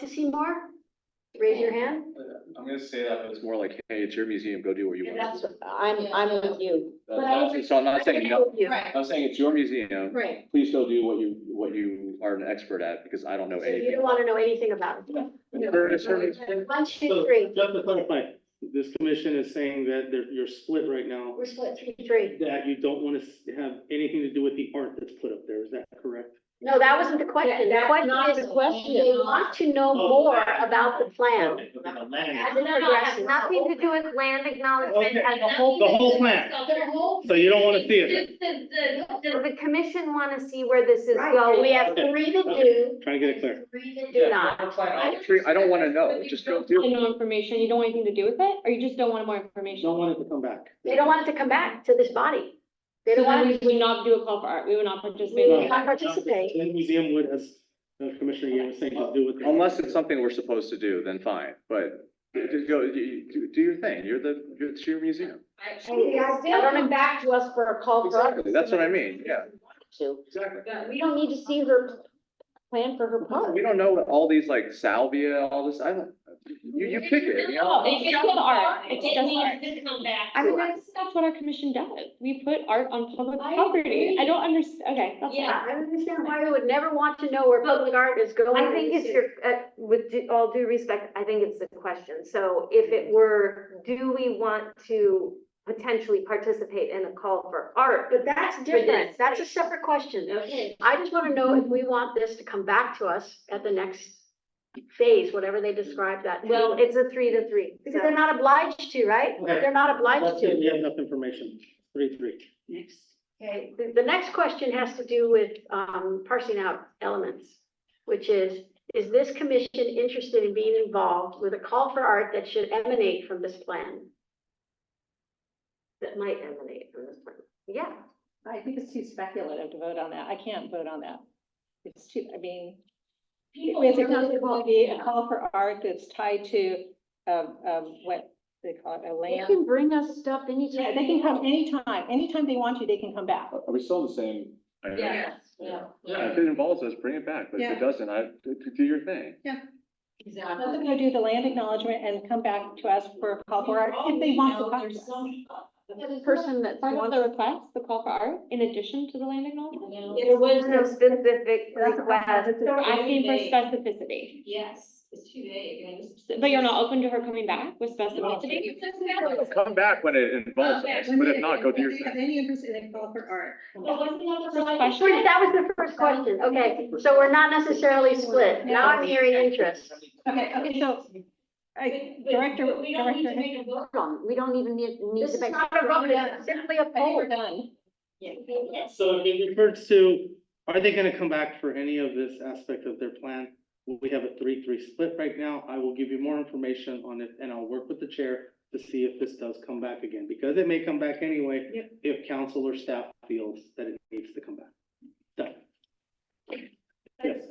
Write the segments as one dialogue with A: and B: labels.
A: to see more? Raise your hand.
B: I'm gonna say that, but it's more like, hey, it's your museum, go do what you
A: And
B: want.
A: that's,
B: to
C: I'm, I'm with you.
A: but I
B: do. So I'm not saying no,
C: Right,
B: I'm saying it's your museum,
C: right.
B: please go do what you, what you are an expert at, because I don't know
A: So you
B: anything.
A: don't wanna know anything about it. One, two,
D: So,
A: three.
D: Just to clarify, this commission is saying that they're, you're split right now,
A: We're split three, three.
D: that you don't want to have anything to do with the art that's put up there, is that correct?
A: No, that wasn't the question. The
C: That's not
A: question
C: the
A: is,
C: question.
A: they want to know more about the plan.
D: Okay, okay, the land.
A: As it progresses.
E: Nothing to do with land acknowledgement.
D: Okay,
E: has
D: the whole, the whole plan,
E: The whole-
D: so you don't want to see it,
E: Just The, the, the, the commission wanna see where this is
A: Right.
E: going.
A: We have
D: Okay.
A: three to do.
D: trying to get it clear.
A: Three to do not.
B: I don't- I don't wanna know, just go do it.
F: No information, you don't want anything to do with it, or you just don't want more information?
D: Don't want it to come back.
A: They don't want it to come back to this body. They
F: So
A: don't
F: then
A: want
F: we
A: it to.
F: would not do a call for art, we would not participate.
A: We
F: in
A: not
F: it.
A: participate.
D: The museum would, as uh, Commissioner Yang was saying, to do with.
B: Unless it's something we're supposed to do, then fine, but just go, you- you- do your thing, you're the, you're- it's your museum.
C: They'll come back to us for a
A: Oh,
C: call for.
B: Exactly, that's what I mean, yeah.
C: To,
B: Exactly.
C: we don't need to see her plan for her part.
B: We don't know what all these like salvia, all this, I don't, you, you pick it, you know?
F: No, it's just art, it's
E: It
F: just
E: needs
F: art.
E: to come back.
F: I mean, that's, that's what our commission does, we put art on public property, I don't understand. okay, that's.
A: Yeah, I don't understand why you would never want to know where public art is going.
E: I think it's your, uh, with due- all due respect, I think it's the question. So if it were, do we want to potentially participate in a call for art?
A: But that's different. That's a separate question.
E: Okay.
A: I just want to know if we want this to come back to us at the next phase, whatever they describe that. to be.
E: Well, it's a three to three.
A: Because they're not obliged to, right?
D: Okay.
A: They're not obliged
D: Unless
A: to.
D: We have enough information, three, three.
A: Okay, the, the next question has to do with, um, parsing out elements, which is, is this commission interested in being involved with a call for art that should emanate from this plan? That might emanate from this plan, yeah.
G: I think it's too speculative to vote on that. I can't vote on that. It's too, I mean, it's
E: are
G: not going to be a call for art that's tied to, um, um, what they call it, a
C: They
G: land.
C: can bring us stuff
G: Yeah,
C: anytime.
G: they can come anytime, anytime they want to, they can come back.
B: Are we still in the same?
E: Yeah.
B: Yeah, if it involves us, bring it back, but if
G: Yeah.
B: it doesn't, I, do- do do your thing.
G: Let them go do the land acknowledgement and come back to us for a call for art if they want to. come to us.
C: The person that
F: Part of
C: wants,
F: the request, the call for art, in addition to the land acknowledgement?
E: There was no specific
G: That's a
E: request.
G: positive.
F: We're asking for specificity,
H: Yes, it's too vague.
F: but you're not open to her coming back with specificity?
H: But
B: Come back when it involves us, but if not, go do your
I: If they have
B: thing.
I: any interest in a call for art,
H: wasn't that the
F: First
H: slide?
F: question,
A: Wait, That was the first question, okay, so we're not necessarily split, now I'm hearing interest.
G: Okay, okay, so, I,
H: But-
G: Director,
H: but We don't need to
G: Director.
H: make a vote.
C: we don't even need, need
A: This
C: to
A: is
C: make.
A: not a vote, it's simply
G: I
A: a
G: think
A: poll.
G: we're done.
D: So in regards to, are they gonna come back for any of this aspect of their plan? We have a three-three split right now. I will give you more information on it and I'll work with the chair to see if this does come back again, because it may come back anyway. If council or staff feels that it needs to come back. Done. Yes,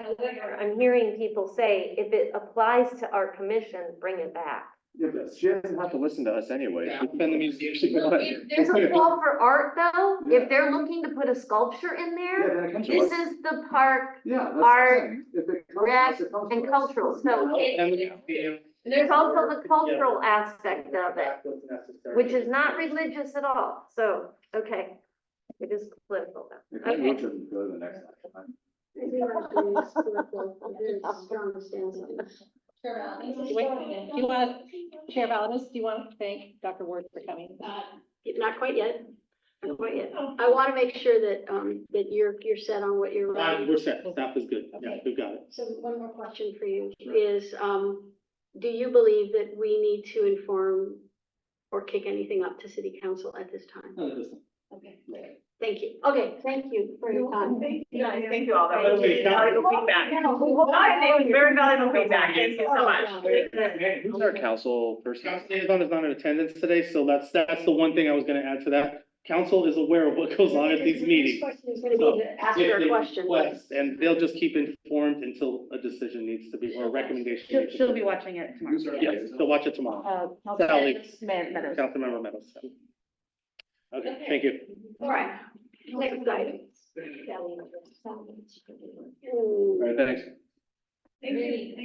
E: However, I'm hearing people say, if it applies to our commission, bring it back.
B: Yeah, but She doesn't have to listen to us anyway.
D: it's been the museum.
B: She can- Yeah,
E: If there's a call for art though, if they're looking to put a sculpture in there,
B: then it comes to
E: this
B: us.
E: is the park
B: Yeah. that's what I'm
E: art,
B: saying. If it comes to
E: rec,
B: us, it comes to
E: and
B: us.
E: cultural, so it-
D: And the museum-
E: there's also the cultural aspect of it,
D: That's what's necessary.
E: which is not religious at all, so, okay. It is political though.
B: If it moves, it go to the next one.
G: Do you want, Chair Valadis, do you want to thank Dr. Ward for coming?
A: Not quite yet, not quite yet. I want to make sure that, um, that you're, you're set on what you're
D: Uh,
A: writing.
D: We're set. Staff is good. Yeah,
A: Okay.
D: we've got it.
A: So one more question for you is, um, do you believe that we need to inform or kick anything up to city council at this time?
D: None of this.
A: Thank you. Okay, thank you for your time. Thank you.
H: Thank you all, that
D: was really valuable
H: feedback. Very valuable feedback, thank you
F: Oh,
H: so much.
B: Who's our council person?
D: Scott Liaison is not in attendance today, so that's, that's the one thing I was gonna add to that. Council is aware of what goes on at these meetings.
A: Question is gonna be to ask her
D: If
A: a
D: they
A: question.
D: request, And they'll just keep informed until a decision needs to be, or a recommendation.
H: She'll,
D: needs to
H: she'll be watching it tomorrow.
B: Who's our
D: Yes,
B: liaison?
D: they'll watch it tomorrow.
G: Uh,
D: Sally.
G: Man- Meadows.
D: Councilmember Meadows. Okay, thank you.
A: All right, next item.
B: All right, thanks.
E: Maybe